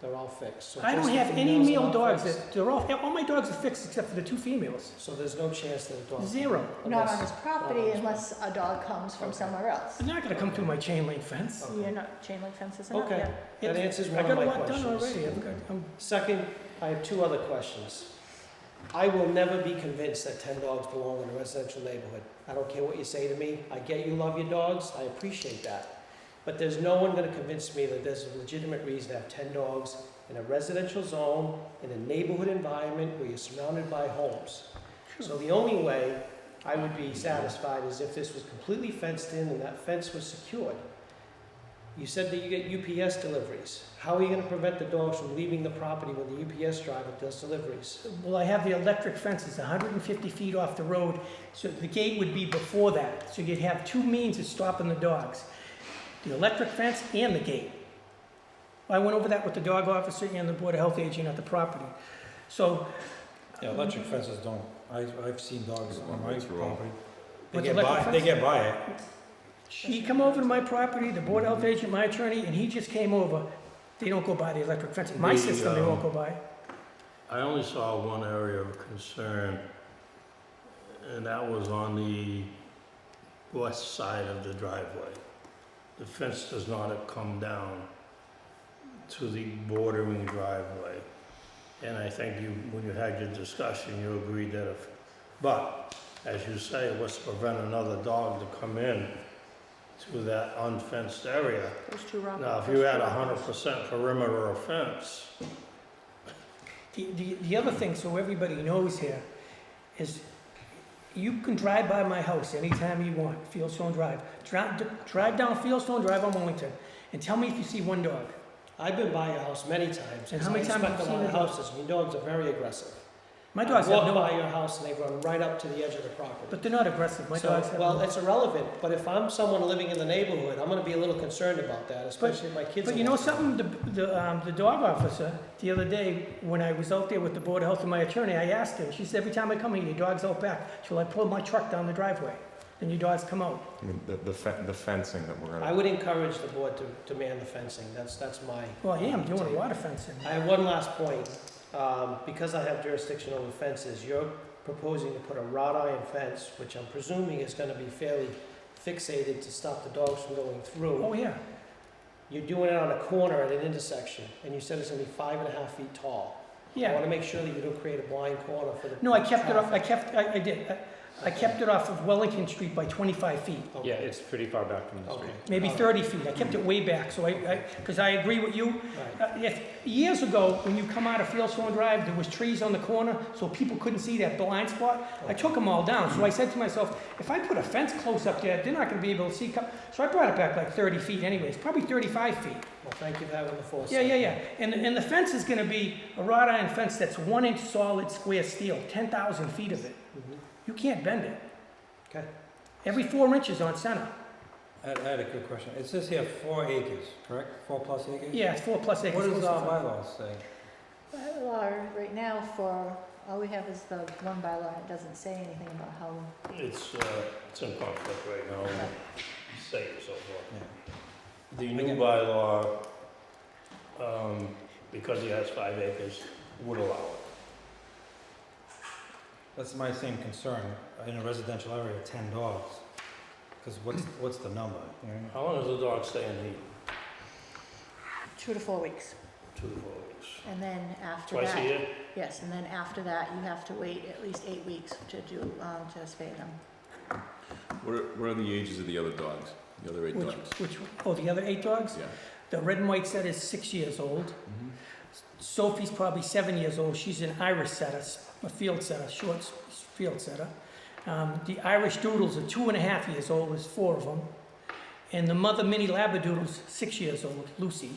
They're all fixed. So I don't just the have any females are male not dogs fixed. that, they're all, all my dogs are fixed except for the two females. So there's no chance that a dog. Zero. Not on unless- his property unless a dog comes from Okay. somewhere else. They're not gonna come through my chain link fence. Okay. You're not, chain link fences are not, Okay, yeah. Oh, that It- answers one of my I got a lot done questions. already, I've got, um, Second, I have two other questions. I will never be convinced that ten dogs belong in a residential neighborhood. I don't care what you say to me. I get you love your dogs. I appreciate that. But there's no one gonna convince me that there's a legitimate reason to have ten dogs in a residential zone, in a neighborhood environment where you're surrounded by homes. So the only way I would be satisfied is if this was completely fenced in and that fence was secured. You said that you get UPS deliveries. How are you gonna prevent the dogs from leaving the property when the UPS driver does deliveries? well, I have the electric fences hundred and fifty feet off the road, so the gate would be before that, so you'd have two means of stopping the dogs. The electric fence and the gate. I went over that with the dog officer and the board of health agent at the property. So, Yeah, electric fences don't, I, I've seen dogs on my property. They With get electric by, they fence? get by it. He come over to my property, the board health agent, my attorney, and he just came over. They don't go by the electric fence. My The, system, they won't um, go by. I only saw one area of concern, and that was on the west side of the driveway. The fence does not come down to the bordering driveway. And I think you, when you had your discussion, you agreed that if, but, as you say, what's to prevent another dog to come in to that unfenced area? There's two wrong. Now, if you had a hundred percent perimeter of fence, The, the, the other thing, so everybody knows here, is you can drive by my house anytime you want, Fieldstone Drive. Drive, drive down Fieldstone Drive on Wellington and tell me if you see one dog. I've been by your house many times. And how many times have I you inspect a lot seen of the dog? houses, and your dogs are very aggressive. My dogs have I walk by no, your house and they run right up to the edge of the property. but they're not aggressive. My So, dogs have Well, no. it's irrelevant, but if I'm someone living in the neighborhood, I'm gonna be a little concerned about that, especially if my kids. But are you know watching. something, the, the, um, the dog officer, the other day, when I was out there with the board of health and my attorney, I asked her, she said, every time I come here, your dog's out back, till I pull my truck down the driveway, then your dogs come out. I mean, The, the fe- the fencing that we're I gonna, would encourage the board to, to man the fencing, that's, that's my. Well, yeah, I'm doing a lot of fencing. I have one last point. Um, Because I have jurisdiction over fences, you're proposing to put a wrought iron fence, which I'm presuming is gonna be fairly fixated to stop the dogs from going Oh, through. yeah, You're doing it on a corner at an intersection, and you said it's gonna be five and a half feet tall. I yeah. wanna make sure that you don't create a blind corner for the. No, I kept it off, I kept, I, I did, I- I kept it off of Wellington Street by twenty-five feet, Okay. yeah, it's pretty far back from the Okay. street. maybe All right. thirty feet, I kept it way back, so I, I, because I agree with you. Right. Uh, If, years ago, when you come out of Fieldstone Drive, there was trees on the corner, so people couldn't see that blind spot. I took them all down, so I said to myself, if I put a fence close up there, they're not gonna be able to see. co-" So I brought it back like thirty feet anyways, probably thirty-five feet. Well, thank you for having the foresight. Yeah, yeah, yeah. And, and the fence is gonna be a wrought iron fence that's one inch solid square steel, ten thousand feet of it. Mhm. You can't bend it. Okay. Every four inches on center. I had, I had a quick question. It says here four acres, correct? Four plus acres? Yeah, it's four plus acres. What does our uh, Close to- bylaws say? Well, our- right now for, all we have is the one bylaw, it doesn't say anything about how, It's, uh, it's in conflict right now, with the state and so forth. The new Okay. bylaw, um, because he has five acres, would allow it. That's my same concern. In a residential area, ten dogs. Because what's, what's the number? you know? How long does the dog stay in heat? two to four weeks. Two to four weeks. And then after Twice a that, year? yes, and then after that, you have to wait at least eight weeks to do, um, to spay them. What are, what are the ages of the other dogs? The other eight Which, dogs? which, oh, the other eight dogs? Yeah. Mm-hmm. The red and white setter is six years old. Sophie's probably seven years old. She's an Irish setter, s- a field setter, short s- field setter. Um, the Irish Doodles are two and a half years old, there's four of them. And the mother mini Labradoodle's six years old, Lucy.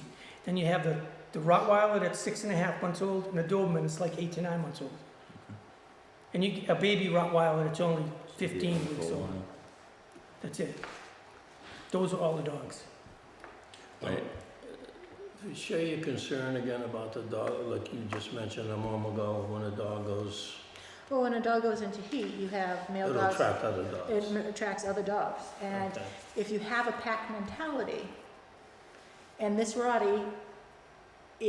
Then you have the, the Rottweiler that's six and a half months old, and the Doberman is like eight to nine months old. And you, a baby Rottweiler that's only 15 weeks old. That's it. Those are all the dogs. Right. uh, Share your concern again about the dog, like you just mentioned a moment ago, when a dog goes, Well, when a dog goes into heat, you have male it'll dogs, attract other it dogs. attracts other dogs. And Okay. if you have a pack mentality, and this Rottie